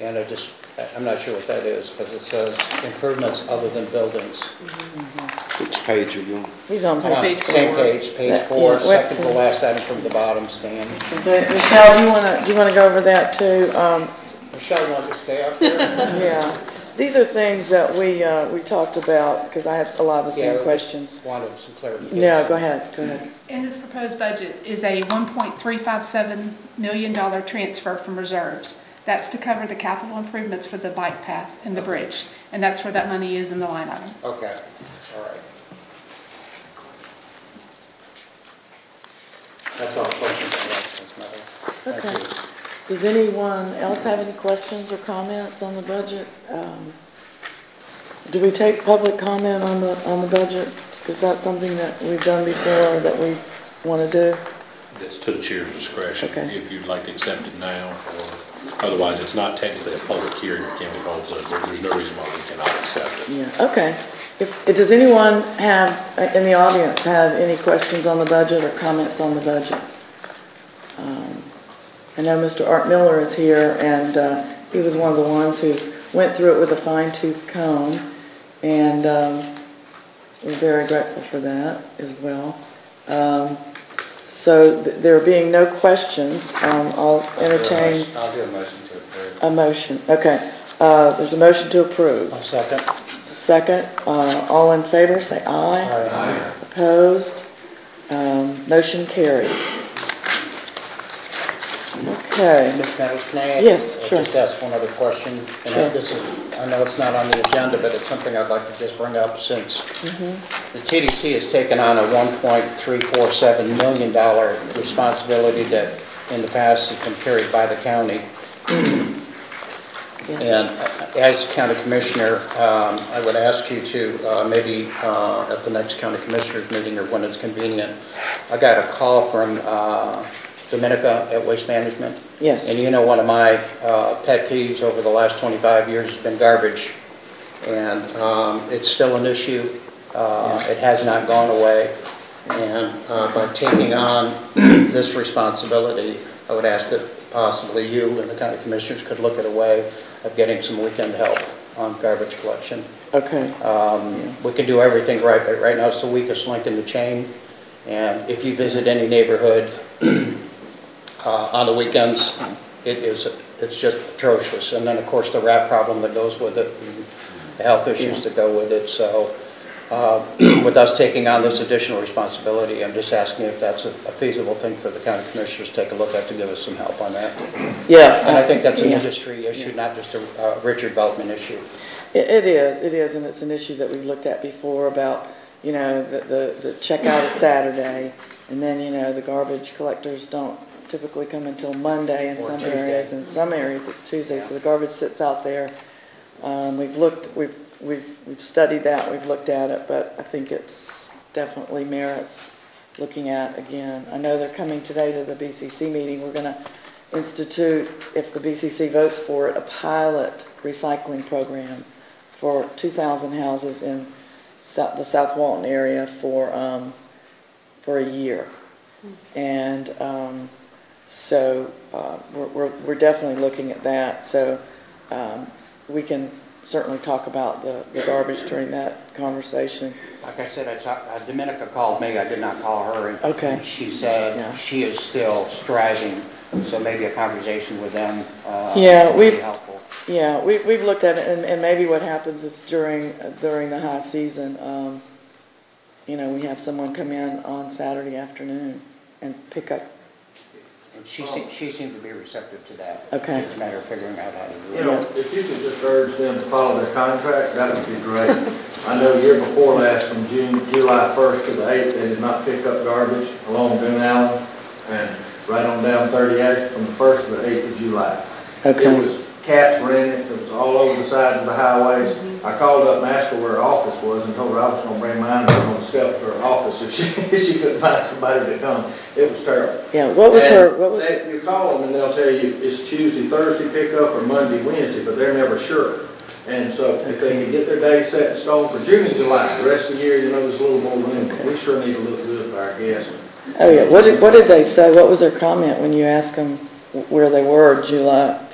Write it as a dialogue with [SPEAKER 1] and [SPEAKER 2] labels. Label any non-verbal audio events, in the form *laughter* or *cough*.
[SPEAKER 1] And I just, I- I'm not sure what that is, because it says improvements other than buildings.
[SPEAKER 2] Which page are you on?
[SPEAKER 3] He's on
[SPEAKER 1] Uh,
[SPEAKER 3] page four.
[SPEAKER 1] Same page, page
[SPEAKER 3] Yeah,
[SPEAKER 1] four,
[SPEAKER 3] yeah, web
[SPEAKER 1] second to
[SPEAKER 3] four.
[SPEAKER 1] last item from the bottom, Stan.
[SPEAKER 3] Is there- Michelle, you wanna, you wanna go over that too? Um,
[SPEAKER 1] Michelle, you want to stay up there?
[SPEAKER 3] yeah, these are things that we, uh, we talked about, because I had a lot of the
[SPEAKER 1] Yeah,
[SPEAKER 3] *laughs* same
[SPEAKER 1] we-
[SPEAKER 3] questions.
[SPEAKER 1] Wanted some clarification.
[SPEAKER 3] No, go ahead, go ahead.
[SPEAKER 4] In this proposed budget is a $1.357 million transfer from reserves. That's to cover the capital improvements for the bike path and the bridge, and that's where that money is in the line item.
[SPEAKER 1] Okay, all right. That's all the questions I have, Ms. Miller.
[SPEAKER 3] Okay.
[SPEAKER 1] Thank you.
[SPEAKER 3] Does anyone else have any questions or comments on the budget? Um, Do we take public comment on the, on the budget? Is that something that we've done before that we want to do?
[SPEAKER 5] It's to the chair's discretion,
[SPEAKER 3] Okay.
[SPEAKER 5] if you'd like to accept it now, or otherwise, it's not technically a public hearing that can be held, so there- there's no reason why we cannot accept it.
[SPEAKER 3] Yeah, okay. If, if- does anyone have, uh, in the audience, have any questions on the budget or comments on the budget? Um, I know Mr. Art Miller is here, and uh, he was one of the ones who went through it with a fine tooth comb, and um, we're very grateful for that as well. Um, So th- there being no questions, um, I'll entertain
[SPEAKER 1] I'll do a motion to approve.
[SPEAKER 3] a motion. Okay, uh, there's a motion to approve.
[SPEAKER 1] I'll second.
[SPEAKER 3] Second, uh, all in favor, say aye.
[SPEAKER 1] Aye.
[SPEAKER 3] Opposed? Um, Motion carries. Okay,
[SPEAKER 1] Ms. Meadows, can I? ask-
[SPEAKER 3] Yes,
[SPEAKER 1] uh,
[SPEAKER 3] sure.
[SPEAKER 1] Just ask one other question. And
[SPEAKER 3] Sure.
[SPEAKER 1] this is, I know it's not on the agenda, but it's something I'd like to just bring up since
[SPEAKER 3] Mm-hmm.
[SPEAKER 1] the TDC has taken on a $1.347 million dollar responsibility that in the past has been carried by the county.
[SPEAKER 3] yes,
[SPEAKER 1] And as county commissioner, um, I would ask you to, uh, maybe uh, at the next county commissioners meeting or when it's convenient, I got a call from uh, Dominica at Waste Management.
[SPEAKER 3] Yes.
[SPEAKER 1] And you know, one of my uh, pet peeves over the last 25 years has been garbage. And um, it's still an issue. Uh, It has not gone away. And uh, by taking on *clears throat* this responsibility, I would ask that possibly you and the county commissioners could look at a way of getting some weekend help on garbage collection.
[SPEAKER 3] okay,
[SPEAKER 1] Um, We can do everything right, but right now it's the weakest link in the chain. And if you visit any neighborhood *clears throat* uh, on the weekends, it is, it's just atrocious. And then, of course, the rat problem that goes with it, and the health issues that go with it. So uh, *clears throat* with us taking on this additional responsibility, I'm just asking if that's a feasible thing for the county commissioners to take a look at to give us some help on that.
[SPEAKER 3] yeah.
[SPEAKER 1] And I think that's an
[SPEAKER 3] yeah.
[SPEAKER 1] industry issue, not just a uh, Richard Beltman issue.
[SPEAKER 3] It, it is, it is, and it's an issue that we've looked at before about, you know, the, the, the checkout is Saturday, and then, you know, the garbage collectors don't typically come until Monday in
[SPEAKER 1] Or
[SPEAKER 3] some
[SPEAKER 1] Tuesday.
[SPEAKER 3] areas, in some areas it's Tuesday, so
[SPEAKER 1] Yeah.
[SPEAKER 3] the garbage sits out there. Um, we've looked, we've, we've, we've studied that, we've looked at it, but I think it's definitely merits looking at again. I know they're coming today to the BCC meeting, we're gonna institute, if the BCC votes for it, a pilot recycling program for 2,000 houses in Sou- the South Walton area for, um, for a year. And um, so uh, we're- we're we're definitely looking at that. So um, we can certainly talk about the the garbage during that conversation.
[SPEAKER 1] Like I said, I talked, uh, Dominica called me, I did not call her. and
[SPEAKER 3] Okay.
[SPEAKER 1] She
[SPEAKER 3] Yeah.
[SPEAKER 1] said she is still striving, so maybe a conversation with them uh,
[SPEAKER 3] Yeah,
[SPEAKER 1] would be
[SPEAKER 3] we've-
[SPEAKER 1] helpful.
[SPEAKER 3] Yeah, we, we've looked at it, and, and maybe what happens is during, during the high season, um, you know, we have someone come in on Saturday afternoon and pick up,
[SPEAKER 1] And she seemed, she seemed to be receptive to that.
[SPEAKER 3] Okay.
[SPEAKER 1] Just a matter of figuring out how to do
[SPEAKER 6] You
[SPEAKER 1] it.
[SPEAKER 6] know, if you could just urge them to follow their contract, that would be great. I know year before last, from June, July 1st to the 8th, they did not pick up garbage along Boone Allen and right on down 38th from the 1st to the 8th of July.
[SPEAKER 3] Okay.
[SPEAKER 6] It was cats running, it was all over the sides of the highways. I called up and asked her where her office was and told her I was gonna bring mine down on the steps to her office if she, *laughs* if she couldn't find somebody to come. It was terrible.
[SPEAKER 3] yeah, what was her, what was,
[SPEAKER 6] And they- You call them and they'll tell you it's Tuesday, Thursday pickup or Monday, Wednesday, but they're never sure. And so if they can get their day set in stone for June and July, the rest of the year, you know, there's a little more room. but We sure need to look good for our guests.
[SPEAKER 3] oh yeah, what did, what did they say? What was their comment when you asked them where they were July,